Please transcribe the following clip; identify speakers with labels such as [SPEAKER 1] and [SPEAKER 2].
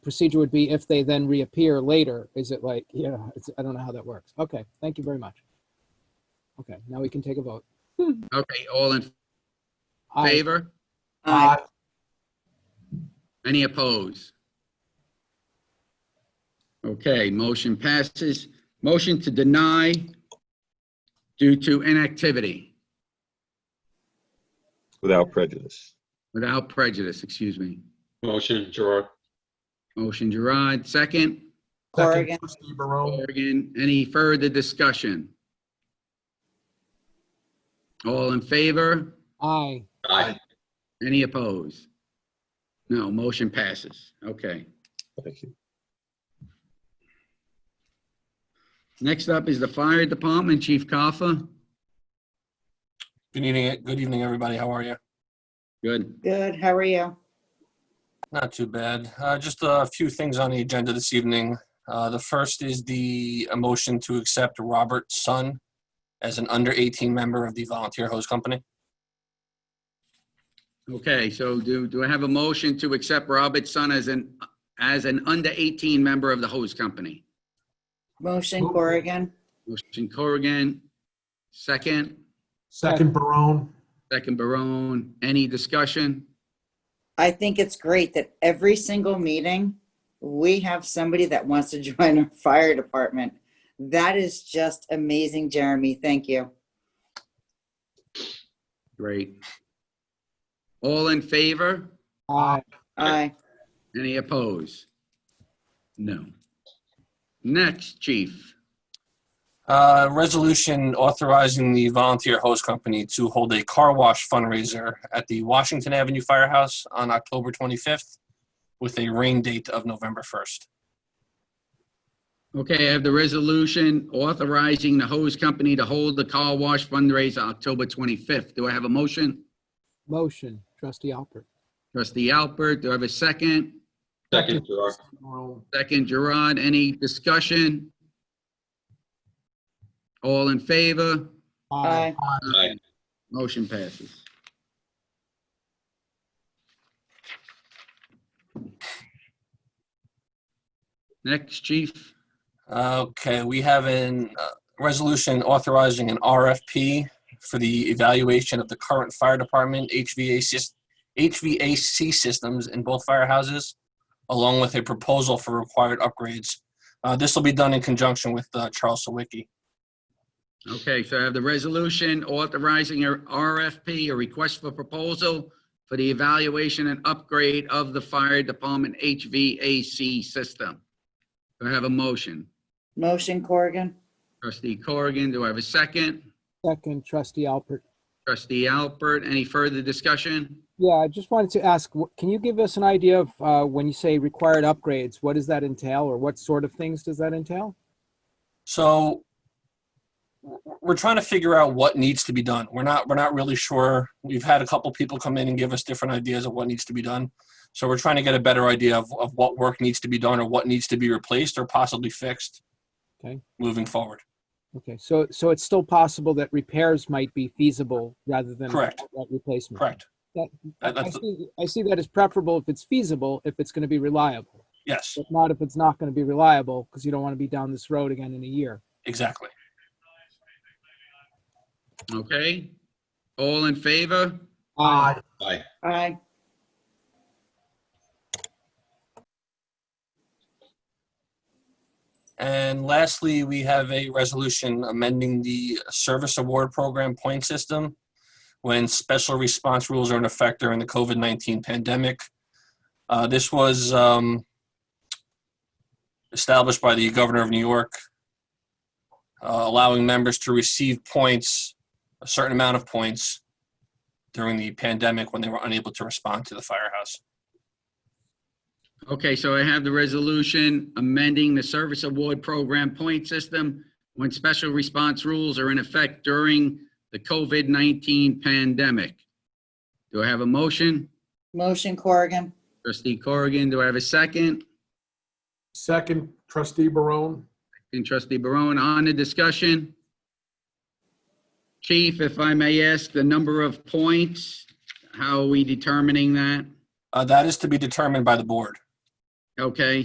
[SPEAKER 1] procedure would be if they then reappear later, is it like, yeah, it's, I don't know how that works. Okay, thank you very much. Okay, now we can take a vote.
[SPEAKER 2] Okay, all in
[SPEAKER 1] Aye.
[SPEAKER 2] favor?
[SPEAKER 3] Aye.
[SPEAKER 2] Any opposed? Okay, motion passes. Motion to deny due to inactivity
[SPEAKER 4] without prejudice.
[SPEAKER 2] without prejudice, excuse me.
[SPEAKER 5] Motion, Gerard.
[SPEAKER 2] Motion Gerard, second.
[SPEAKER 3] Corrigan,
[SPEAKER 6] Trustee Barone.
[SPEAKER 2] Morgan, any further discussion? All in favor?
[SPEAKER 1] Aye.
[SPEAKER 5] Aye.
[SPEAKER 2] Any opposed? No, motion passes. Okay.
[SPEAKER 4] Thank you.
[SPEAKER 2] Next up is the fire department, Chief Kaffa.
[SPEAKER 7] Good evening, eh, good evening, everybody. How are you?
[SPEAKER 2] Good.
[SPEAKER 3] good, how are you?
[SPEAKER 7] Not too bad. Uh, just a few things on the agenda this evening. Uh, the first is the a motion to accept Robert Sun as an under 18 member of the Volunteer Hose Company.
[SPEAKER 2] Okay, so do, do I have a motion to accept Robert Son as an, as an under 18 member of the hose company?
[SPEAKER 3] Motion Corrigan,
[SPEAKER 2] Motion Corrigan, second,
[SPEAKER 6] Second Barone.
[SPEAKER 2] second Barone. Any discussion?
[SPEAKER 3] I think it's great that every single meeting, we have somebody that wants to join our fire department. That is just amazing, Jeremy, thank you.
[SPEAKER 2] Great. All in favor?
[SPEAKER 1] Aye.
[SPEAKER 3] Aye,
[SPEAKER 2] Any opposed? No. Next, chief.
[SPEAKER 7] Uh, resolution authorizing the Volunteer Hose Company to hold a car wash fundraiser at the Washington Avenue Firehouse on October 25th with a rain date of November 1st.
[SPEAKER 2] Okay, I have the resolution authorizing the hose company to hold the car wash fundraiser October 25th. Do I have a motion?
[SPEAKER 1] Motion, trustee Alpert.
[SPEAKER 2] Trustee Alpert, do I have a second?
[SPEAKER 5] Second, Gerard.
[SPEAKER 6] Barone.
[SPEAKER 2] Second, Gerard, any discussion? All in favor?
[SPEAKER 3] aye,
[SPEAKER 5] Aye.
[SPEAKER 2] Motion passes. Next, chief.
[SPEAKER 7] Okay, we have a resolution authorizing an RFP for the evaluation of the current fire department HVAC, sys- HVAC systems in both firehouses, along with a proposal for required upgrades. Uh, This will be done in conjunction with uh, Charles Sawicki.
[SPEAKER 2] Okay, so I have the resolution authorizing a RFP, a request for proposal for the evaluation and upgrade of the fire department HVAC system. Do I have a motion?
[SPEAKER 3] motion Corrigan,
[SPEAKER 2] Trustee Corrigan, do I have a second?
[SPEAKER 1] Second, trustee Alpert.
[SPEAKER 2] Trustee Albert, any further discussion?
[SPEAKER 1] Yeah, I just wanted to ask, wh- can you give us an idea of, uh, when you say required upgrades, what does that entail or what sort of things does that entail?
[SPEAKER 7] So w- we're trying to figure out what needs to be done. We're not we're not really sure. We've had a couple people come in and give us different ideas of what needs to be done. So we're trying to get a better idea of, of what work needs to be done or what needs to be replaced or possibly fixed
[SPEAKER 1] Okay.
[SPEAKER 7] moving forward.
[SPEAKER 1] Okay, so, so it's still possible that repairs might be feasible rather than
[SPEAKER 7] Correct.
[SPEAKER 1] outright replacement?
[SPEAKER 7] Correct.
[SPEAKER 1] That-
[SPEAKER 7] That-
[SPEAKER 1] I
[SPEAKER 7] that's-
[SPEAKER 1] see, I see that as preferable if it's feasible, if it's going to be reliable,
[SPEAKER 7] yes,
[SPEAKER 1] but not if it's not going to be reliable because you don't want to be down this road again in a year.
[SPEAKER 7] exactly.
[SPEAKER 2] Okay? All in favor?
[SPEAKER 1] Um,
[SPEAKER 6] Aye.
[SPEAKER 5] Aye.
[SPEAKER 3] aye,
[SPEAKER 7] And lastly, we have a resolution amending the service award program point system when special response rules are in effect during the COVID-19 pandemic. Uh, This was um, established by the governor of New York, uh, allowing members to receive points, a certain amount of points during the pandemic when they were unable to respond to the firehouse.
[SPEAKER 2] Okay, so I have the resolution amending the service award program point system when special response rules are in effect during the COVID-19 pandemic. Do I have a motion?
[SPEAKER 3] motion Corrigan,
[SPEAKER 2] Trustee Corrigan, do I have a second?
[SPEAKER 6] Second Trustee Barone.
[SPEAKER 2] And trustee Barone, on the discussion. Chief, if I may ask, the number of points, how are we determining that?
[SPEAKER 7] Uh, That is to be determined by the board.
[SPEAKER 2] Okay,